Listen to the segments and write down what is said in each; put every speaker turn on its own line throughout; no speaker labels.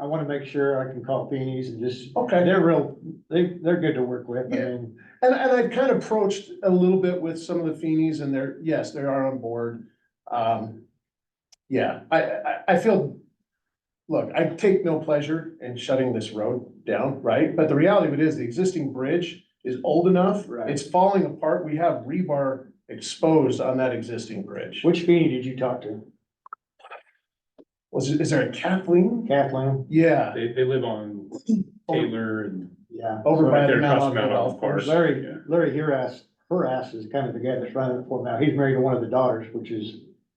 I wanna make sure I can call Feeney's and just,
Okay.
they're real, they, they're good to work with, I mean,
And, and I've kind of approached a little bit with some of the Feenies and they're, yes, they are on board. Um, yeah, I, I, I feel, look, I take no pleasure in shutting this road down, right? But the reality of it is the existing bridge is old enough.
Right.
It's falling apart. We have rebar exposed on that existing bridge.
which Feeney did you talk to?
Was, it- is there a Kathleen?
Kathleen?
Yeah,
They, they live on Taylor and.
Yeah.
over by
Right
the
there,
Mount
across
Ogden
Mount
Golf
Ogden Park.
Course.
Larry,
Yeah.
Larry Hurass, Hurass is kind of the guy that's running it for now, he's married to one of the daughters, which is,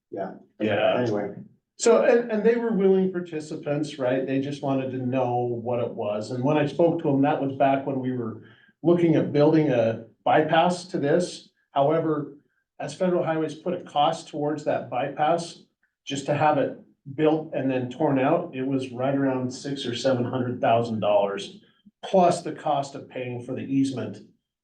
Yeah.
anyway,
So, and, and they were willing participants, right? They just wanted to know what it was. And when I spoke to them, that was back when we were looking at building a bypass to this. However, as federal highways put a cost towards that bypass, just to have it built and then torn out, it was right around six or seven hundred thousand dollars. Plus the cost of paying for the easement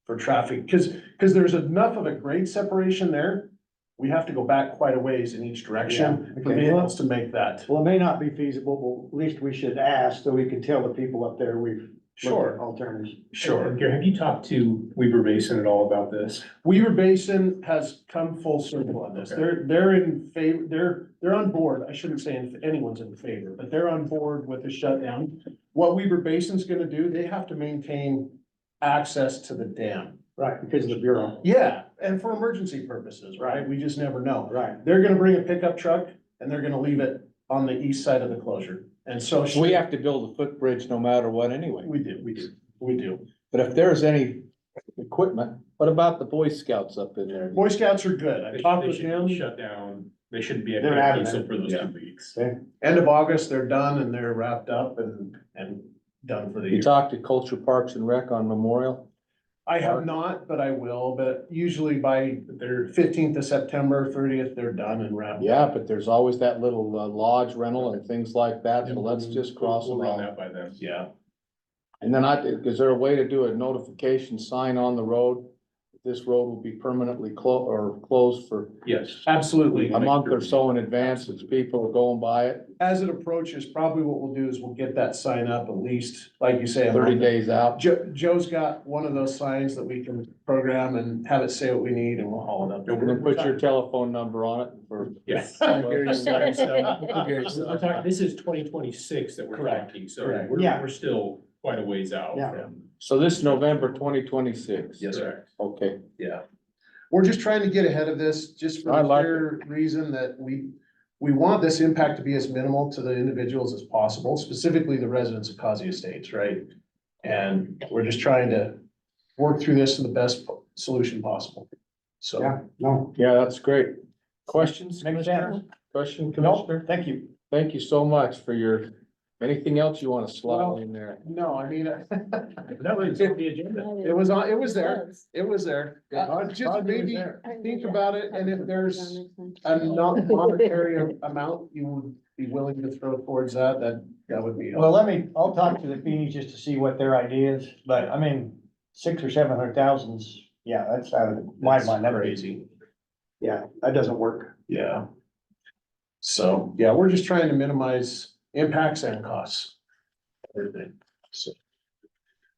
for traffic, because, because there's enough of a grade separation there. We have to go back quite a ways in each direction
Yeah,
for
okay.
vehicles to make that.
well, it may not be feasible, but at least we should ask, so we can tell the people up there we've looked at
Sure,
alternatives.
sure.
Gary, have you talked to Weaver Basin at all about this?
Weaver Basin has come full circle on this.
Okay.
They're, they're in favor, they're, they're on board. I shouldn't say if anyone's in favor, but they're on board with the shutdown. What Weaver Basin's gonna do, they have to maintain access to the dam.
Right, because of the bureau,
Yeah, and for emergency purposes, right? We just never know.
right,
They're gonna bring a pickup truck and they're gonna leave it on the east side of the closure. And so. should-
We have to build a footbridge no matter what anyway,
We do, we do, we do.
but if there's any equipment, what about the Boy Scouts up in there?
Boy Scouts are good.
They
I
should-
talked
they
with
should
him.
Shut down, they shouldn't be at
They're
Grand
adamant.
Council for those
Yeah.
two weeks.
End of August, they're done and they're wrapped up and, and done for the
You
year.
talked to Culture Parks and Rec on Memorial?
I have not, but I will, but usually by
But they're,
fifteenth of September, thirtieth, they're done and wrapped.
Yeah, but there's always that little uh, lodge rental and things like that, so let's just cross
we'll
them
run
out.
that by them.
Yeah,
And then I, is there a way to do a notification sign on the road? This road will be permanently clo- or closed for
Yes.
absolutely.
a month or so in advance as people are going by it,
As it approaches, probably what we'll do is we'll get that sign up at least, like you say. a
thirty
month.
days out.
Joe, Joe's got one of those signs that we can program and have it say what we need and we'll haul it up.
And then put your telephone number on it for.
Yes. We're talking- This is twenty twenty-six that we're
Correct.
talking, so
Correct.
we're,
Yeah.
we're still quite a ways out
Yeah.
from.
So this November twenty twenty-six?
Yes, sir.
Correct.
Okay,
We're just trying to get ahead of this, just for
I
the
like
clear reason that we, we want this impact to be as minimal to the individuals as possible, specifically the residents of Causey Estates, right? And we're just trying to work through this in the best po- solution possible.
yeah,
So,
no,
yeah, that's great. Questions?
Makes
Commissioner?
sense.
Question,
No,
Commissioner?
thank you.
Thank you so much for your, anything else you want to
Well-
slot in there?
no, I mean,
That was on the agenda.
it was, on. it was there, it was there.
Yeah,
Uh, Just maybe think about it, and if there's a
I'm not.
non-monetary amount you would be willing to throw towards that, that, that would be.
well,
helpful.
let me, I'll talk to the Feeney's just to see what their idea is, but I mean, six or seven hundred thousands, yeah, that's out of my
That's
mind, that is,
Crazy.
yeah, that doesn't work.
Yeah. So, yeah, we're just trying to minimize impacts and costs. Everything, so.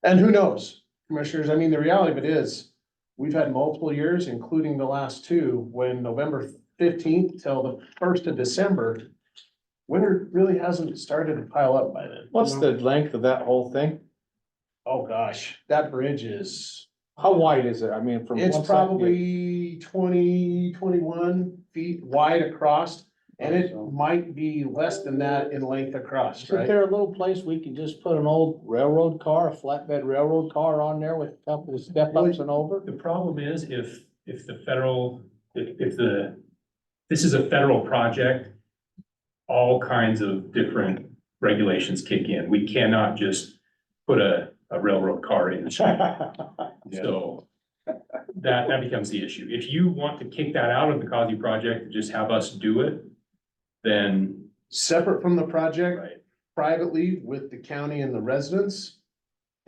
And who knows, commissioners, I mean, the reality of it is, we've had multiple years, including the last two, when November fifteenth till the first of December. Winter really hasn't started to pile up by then.
What's the length of that whole thing?
Oh, gosh, that bridge is,
How wide is it? I mean, from.
it's
one side to the-
probably 20, 21 feet wide across. And it might be less than that in length across,
Isn't
right?
there a little place we can just put an old railroad car, a flatbed railroad car on there with a couple of step ups and over?
The problem is if, if the federal, if, if the, this is a federal project, all kinds of different regulations kick in. We cannot just put a, a railroad car in. So that, that becomes the issue. If you want to kick that out of the Cosby project, just have us do it, then,
Separate from the project
right,
privately with the county and the residents.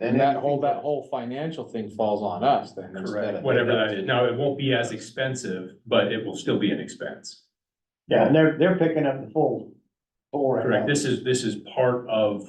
And that whole, that whole financial thing falls on us then instead
correct,
of.
whatever that is. Now, it won't be as expensive, but it will still be an expense.
Yeah, and they're, they're picking up the full, full right now.
Correct. This is, this is part of